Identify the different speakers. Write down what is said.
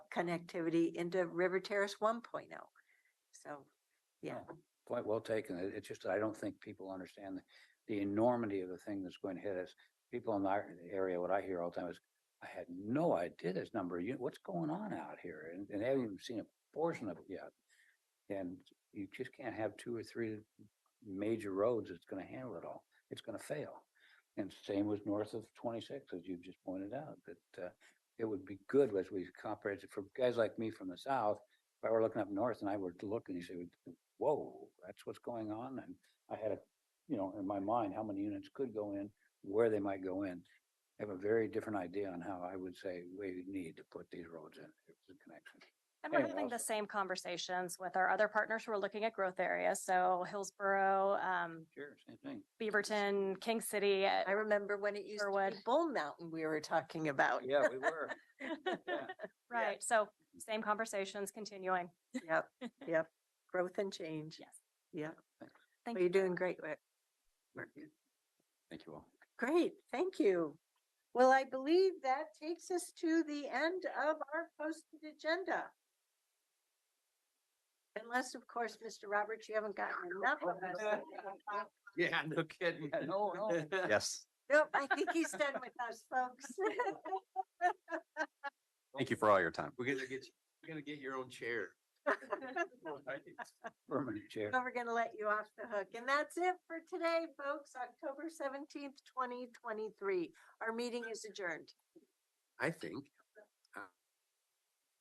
Speaker 1: connectivity into River Terrace one oh. So, yeah,
Speaker 2: Point well taken. It- It's just, I don't think people understand the- the enormity of the thing that's going to hit us. People in our area, what I hear all the time is, I had no idea this number, you, what's going on out here? And, and they haven't even seen a portion of it yet. And you just can't have two or three major roads that's gonna handle it all. It's gonna fail. And same was north of twenty-six, as you've just pointed out, that, uh, it would be good as we compare it for guys like me from the south. If I were looking up north and I were to look and you say, whoa, that's what's going on. And I had a, you know, in my mind, how many units could go in, where they might go in. I have a very different idea on how I would say we need to put these roads in, if it's a connection.
Speaker 3: And we're
Speaker 2: Anyway,
Speaker 3: having the
Speaker 2: also-
Speaker 3: same conversations with our other partners who are looking at growth areas. So Hillsboro, um,
Speaker 2: Sure, same thing.
Speaker 3: Beaverton, King City. uh,
Speaker 1: I remember when it used to be
Speaker 3: Sherwood.
Speaker 1: Bull Mountain we were talking about.
Speaker 2: Yeah, we were. Yeah.
Speaker 3: Right. So same conversations continuing.
Speaker 1: Yep, yep, growth and change.
Speaker 3: Yes.
Speaker 1: Yeah.
Speaker 2: Thanks.
Speaker 3: Thank
Speaker 1: Well,
Speaker 3: you.
Speaker 1: You're doing great work.
Speaker 2: Thank you all.
Speaker 1: Great, thank you. Well, I believe that takes us to the end of our posted agenda. Unless, of course, Mr. Roberts, you haven't gotten enough of us.
Speaker 4: Yeah, no kidding.
Speaker 2: Yeah, no, no.
Speaker 4: Yes,
Speaker 1: Nope, I think he's done with us, folks.
Speaker 4: thank you for all your time. We're gonna get, we're gonna get your own chair.
Speaker 2: Permanent chair.
Speaker 1: But we're gonna let you off the hook. And that's it for today, folks, October seventeenth, twenty twenty-three. Our meeting is adjourned.
Speaker 4: I think.